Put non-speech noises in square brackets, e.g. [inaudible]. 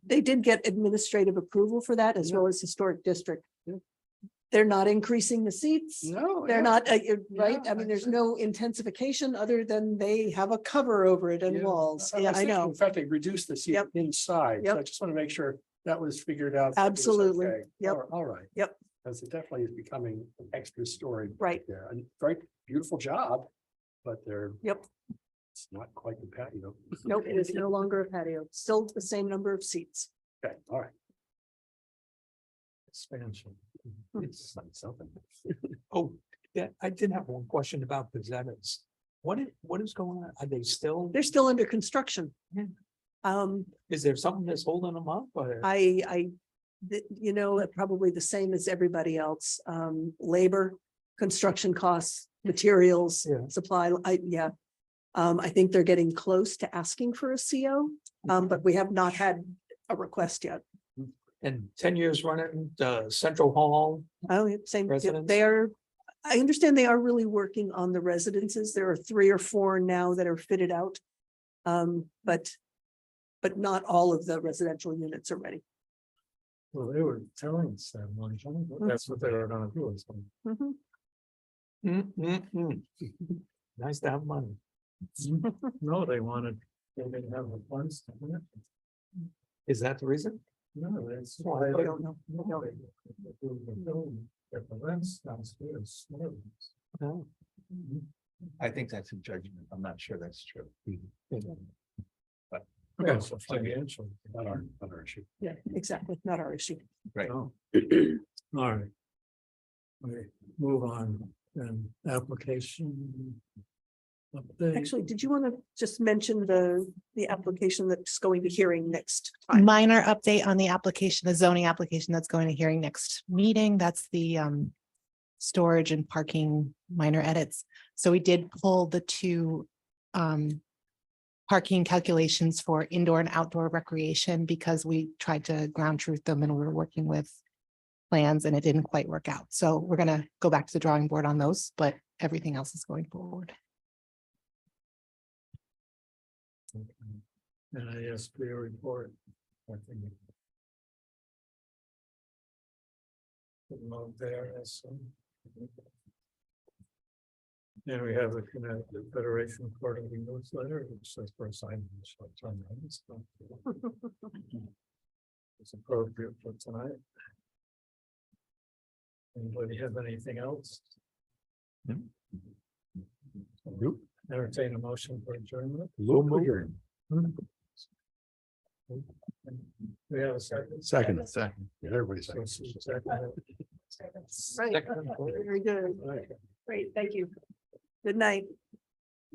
they did get administrative approval for that as Yeah. well as historic district. Yeah. They're not increasing the seats. No. yeah. They're not, uh, you're right? Yeah, I mean, there's exactly. no intensification other than they have a cover over it and Yeah. walls. I- I Yeah, was I thinking, know. In fact, they reduced the seat Yep. inside. So I Yep. just want to make sure that was figured out. that it was Absolutely. okay. Yep. All- All right. Yep. Because it definitely is becoming an extra story. Right. There, and very beautiful job, but they're. Yep. It's not quite the patio. Nope, it is no longer a patio, still the same number of seats. [laughs] Okay, all right. Expansion. Hmm. It's like something. [laughs] Oh, yeah, I did have one question about the Zenits. What is, what is going on? Are they still, They're still under construction. Yeah. Um, is there something that's holding them up or? I, I, th- you know, probably the same as everybody else, um, labor, construction costs, materials, Mm. Yeah. supply, I, yeah. Um, I think they're getting close to asking for a CO, um, but we have not had a request yet. And ten years running, the Central Hall, Oh, yeah, same, yeah, Residents? they are, I understand they are really working on the residences. There are three or four now that are fitted out. Um, but, but not all of the residential units are ready. Well, they were telling us that one, That's what they were gonna do. Mm-hmm. Mhm. Mm, mm, mm. nice to have money. [laughs] No, they wanted, they didn't have the funds. Is that the reason? No, that's why- I don't know. No. I think that's a judgment. I'm not sure that's true. Okay, so financial, not our, not our issue. Yeah, exactly. Not our issue. [clears throat] All Oh. right. We move on, and application. Mm. Actually, did you want to just mention the, the application that's going to hearing next time? Minor update on the application, the zoning application that's going to hearing next meeting. That's the um. Storage and parking minor edits. So we did pull the two um. Parking calculations for indoor and outdoor recreation because we tried to ground truth them and we were working with. Plans and it didn't quite work out. So we're gonna go back to the drawing board on those, but everything else is going forward. And I asked for your report. I think Put them out there as some. And we have the Connecticut Federation Quarterly Newsletter, which says for assignment. It's appropriate for tonight. Anybody have anything else? Nope. Entertain a motion for adjournment. We have a second. Second. Second. Everybody's So it's a second. Right. Very good. Right. Great. Thank you. Good night.